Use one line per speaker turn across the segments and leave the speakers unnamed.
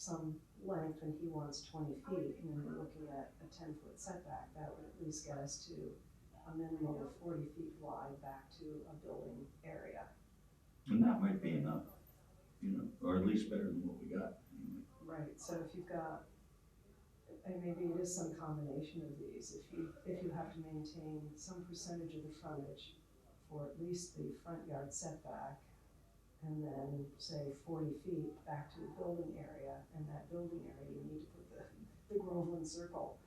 some length and he wants twenty feet, and then we're looking at a ten-foot setback, that would at least get us to a minimum of forty feet wide back to a building area.
And that might be enough, you know, or at least better than what we got.
Right, so if you've got, and maybe it is some combination of these, if you, if you have to maintain some percentage of the frontage for at least the front yard setback, and then say forty feet back to the building area, and that building area, you need to put the, the Groveland circle,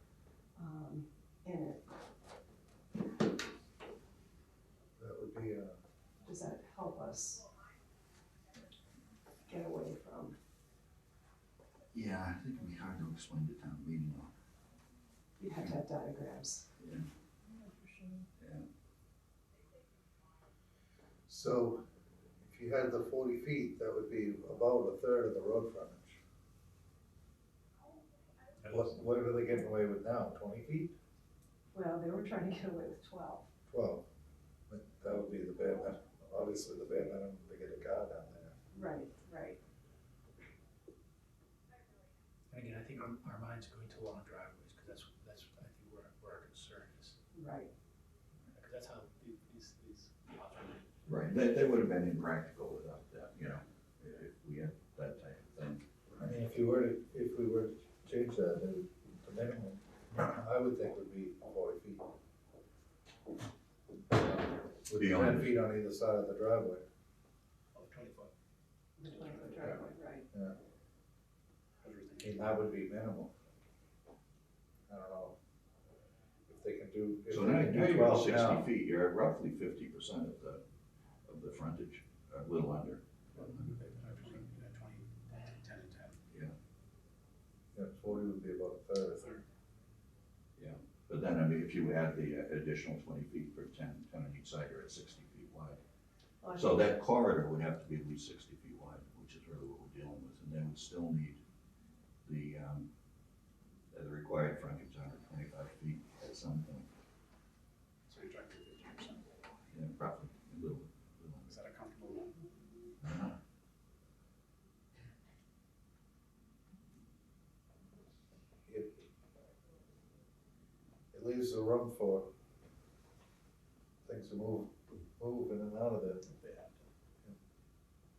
um, in it.
That would be uh, a,
Does that help us get away from,
Yeah, I think it'd be hard to explain to town meeting though.
you have to have diagrams.
so if you had the forty feet, that would be about a third of the road frontage. What, what are they getting away with now, twenty feet,
Well, they were trying to get away with twelve.
twelve? But That would be the bare minimum, obviously the bare minimum to get a car down there.
Right, right.
And again, I think our, our minds are going to long driveways, because that's, that's, I think where, where our concern is,
Right,
because that's how the- these, these laws are written.
Right, that, that would have been impractical without that, you know, if we had that type of thing.
I mean, if you were to, if we were to change that, then the minimum, I would think would be forty feet. With
Beyond.
ten feet on either side of the driveway.
Oh, twenty foot,
the driveway, driveway, right.
I
I was
mean,
thinking.
that would be minimal. I don't know. If they can do. if
So
they
now
can do
you're about
12 now,
sixty feet, you're at roughly fifty percent of the, of the frontage, a little under.
Uh, Twenty, ten and ten.
Yeah, forty would be about a third.
But then, I mean, if you add the uh, additional twenty feet for 10, 10 on each side, you're at sixty feet wide.
Well, I
So
think-
that corridor would have to be at least sixty feet wide, which is really what we're dealing with, and then we'd still need the, um, uh, the required frontage, hundred twenty-five feet at some point,
So you're driving fifty percent,
yeah, roughly, a little, little
is that a comfortable one?
under. Uh-huh.
It it leaves the room for things to move, move in and out of there.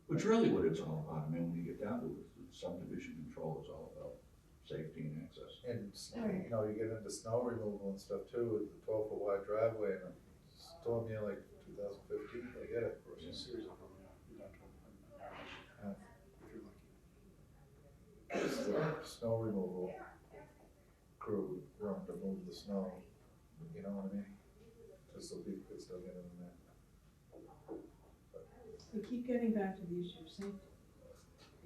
Which really what it's all about, I mean, when you get down to it, subdivision control is all about safety and access.
And, it's- you know, you get into snow removal and stuff too, with the twelve foot wide driveway and a storm year like two thousand fifteen, I get it.
Or is it a series of them, yeah, you're down to a narrow, if you're lucky.
Snow removal crew run to move the snow, you know what I mean? Just so people could still get in there.
We keep getting back to the issue of safety,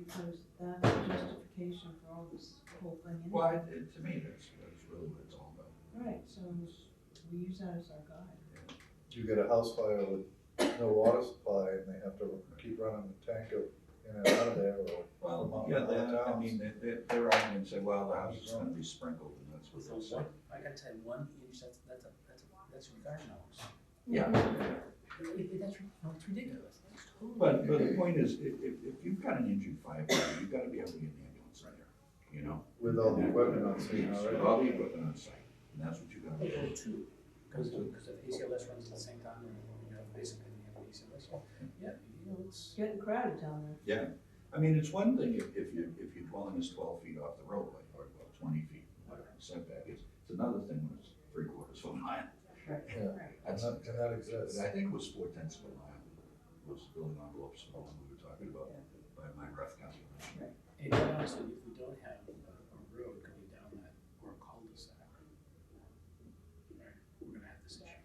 because that's the justification for all this whole thing. anyway.
Well, it- it- to me, that's, that's really what it's all about.
Right, so
Mm-hmm.
we use that as our guide.
You get a house fire with no water supply and they have to keep running the tank up in and out of there or.
Well, yeah, that, I mean, they, they, they're out and say, well, the house is gonna be sprinkled, and that's what
So
they'll say.
one, I gotta tell you, one inch, that's, that's a, that's a, that's your garden hose.
Yeah.
It- it- That's, ri- no, it's ridiculous, it's totally.
But, but the point is, if, if, if you've got an injured firefighter, you've gotta be able to get an ambulance in there, you know?
With all the equipment on scene
Yes,
already.
with All the equipment on site, and that's what you gotta
They
do.
go too, because, because if ACLS runs at the same time, you have basically, you have ACLS, well, Oh, yeah, you know, it's.
It's getting crowded down there.
Yeah, I mean, it's one thing if, if you, if your dwelling is twelve feet off the roadway, or well, twenty feet, whatever the setback is, it's another thing when it's three quarters of a mile.
Yeah, and
That's-
that, and that
But
exists.
I think it was four tenths of a mile, was the building envelopes, the one we were talking about, by my rough calculation.
And quite honestly, if we don't have a a road going down that, or a cul-de-sac, right, we're gonna have this issue.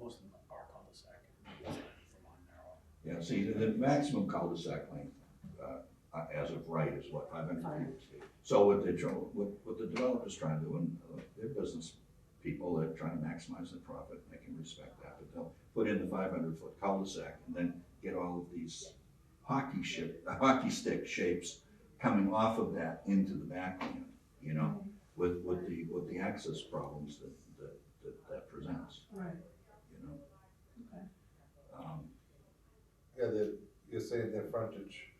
Most of them are cul-de-sac, Vermont narrow.
Yeah, see, the, the maximum cul-de-sac length, uh, uh, as of right is what, five hundred feet? So what they're, tr- what, what the developer's trying to do, and uh, their business people, they're trying to maximize their profit, and I can respect that, but they'll put in the five hundred foot cul-de-sac and then get all of these hockey ship, uh, hockey stick shapes coming off of that into the backland, you know, with, with the, with the access problems that, that, that, that presents,
Right,
you know?
Okay.
Um,
Yeah, that, you're saying their frontage